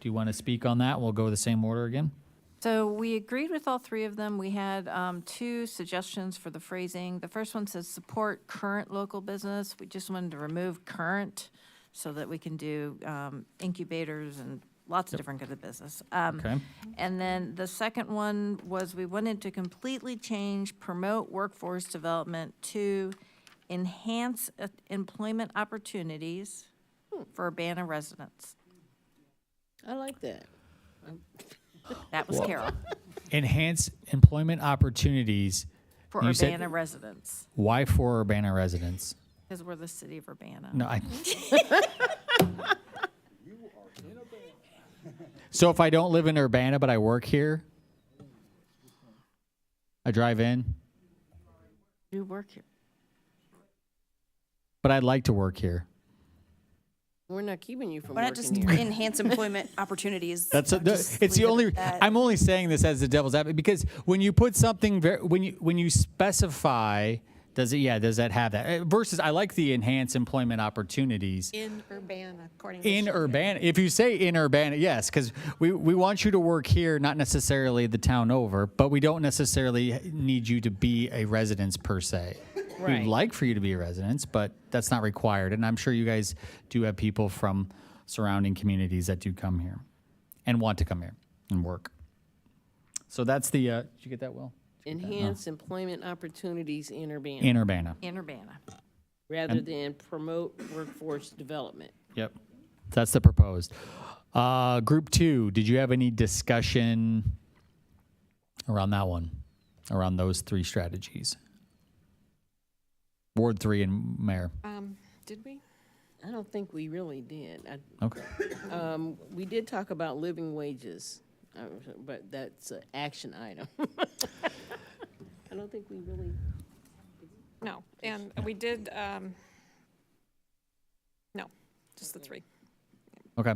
Do you want to speak on that? We'll go the same order again. So we agreed with all three of them. We had um, two suggestions for the phrasing. The first one says support current local business. We just wanted to remove current so that we can do um, incubators and lots of different kinds of business. Um, Okay. And then the second one was we wanted to completely change promote workforce development to enhance uh, employment opportunities Hmm. for Urbana residents. I like that. That was Carol, Enhance employment opportunities. for You said- Urbana residents. Why for Urbana residents? Because we're the city of Urbana. No, I. So if I don't live in Urbana, but I work here? I drive in, You work here. but I'd like to work here. We're not keeping you from Why not just working here. enhance employment opportunities? That's a, Or just it's the leave it only. at that? I'm only saying this as the devil's advocate because when you put something ver- when you when you specify, does it? Yeah, does that have that? Uh, Versus, I like the enhance employment opportunities In Urbana, according to. in Sharon. Urbana. If you say in Urbana, yes, because we we want you to work here, not necessarily the town over, but we don't necessarily need you to be a residence per se. Right. We'd like for you to be a residence, but that's not required. And I'm sure you guys do have people from surrounding communities that do come here and want to come here and work. So that's the. Uh, did you get that, Will? Enhance employment opportunities in Urbana, Uh-huh. In Urbana. In Urbana. rather than promote workforce development. Yep. That's the proposed. Uh, group two, did you have any discussion around that one, around those three strategies? Ward three and mayor. Um, Did we? I don't think we really did. I- Okay. um, We did talk about living wages, uh, but that's an action item. I don't think we really, No, and we did, um, no, just the three. Okay.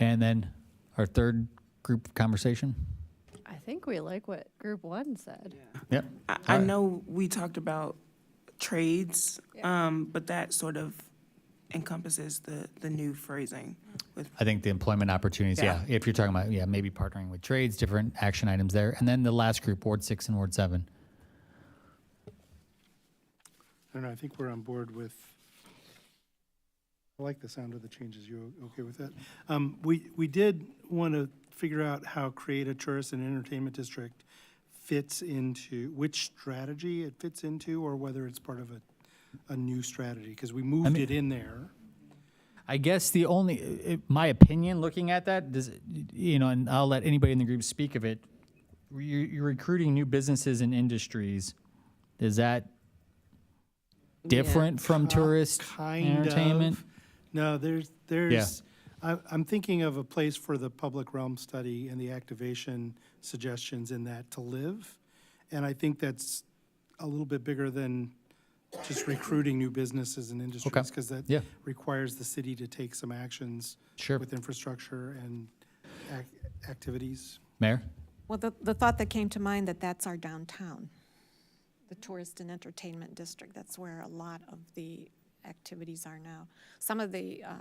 And then our third group conversation. I think we like what group one said. Yep. I, I know we talked about trades, um, but that sort of encompasses the, the new phrasing with I think the employment opportunities. Yeah. If you're talking about, yeah, maybe partnering with trades, different action items there. And then the last group, Ward six and Ward seven. I don't know, I think we're on board with, I like the sound of the changes, you o- okay with that? Um, we, we did want to figure out how create a tourist and entertainment district fits into, which strategy it fits into, or whether it's part of a, a new strategy, because we moved it in there. I guess the only, it- my opinion, looking at that, does, you know, and I'll let anybody in the group speak of it. You're, you're recruiting new businesses and industries. Is that different from tourist kind entertainment? of. No, there's there's. I, I'm thinking of a place for the public realm study and the activation suggestions in that to live, and I think that's a little bit bigger than just recruiting new businesses and industries because that Yeah. requires the city to take some actions Sure. with infrastructure and ac- activities. Mayor? Well, the, the thought that came to mind that that's our downtown, the tourist and entertainment district. That's where a lot of the activities are now. Some of the, uh,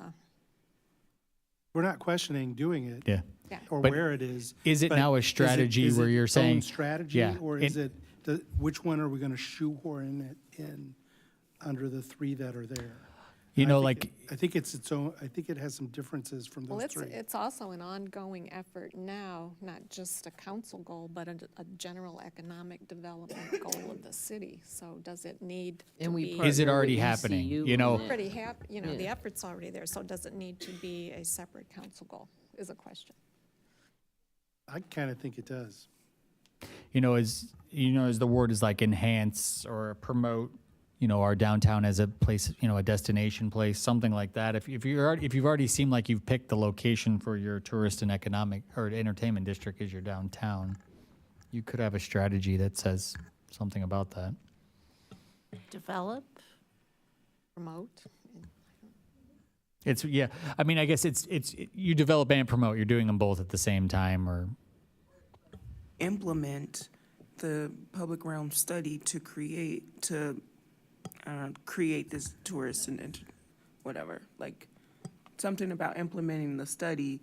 We're not questioning doing it. Yeah. Yeah. Or But where it is. is it but now a is it- strategy is where it you're its saying- Own strategy, Yeah, or it- is it, the- which one are we gonna shoehorn it in under the three that are there? You I know, think like, it- I think it's its own, I think it has some differences from Well, those it's, three. it's also an ongoing effort now, not just a council goal, but a, a general economic development goal of the city. So does it need to and we be, partner it's Is it already with happening? ECU You on know- that. pretty hap, you know, the effort's already there, so does it need to be a separate council goal is a question. I kinda think it does. you know, as you know, as the word is like enhance or promote, you know, our downtown as a place, you know, a destination place, something like that. If, if you're already, if you've already seemed like you've picked the location for your tourist and economic or entertainment district as your downtown, you could have a strategy that says something about that. Develop? Promote, It's yeah. I mean, I guess it's it's you develop and promote. You're doing them both at the same time, or implement the public realm study to create, to, uh, create this tourist and, ent- whatever, like, something about implementing the study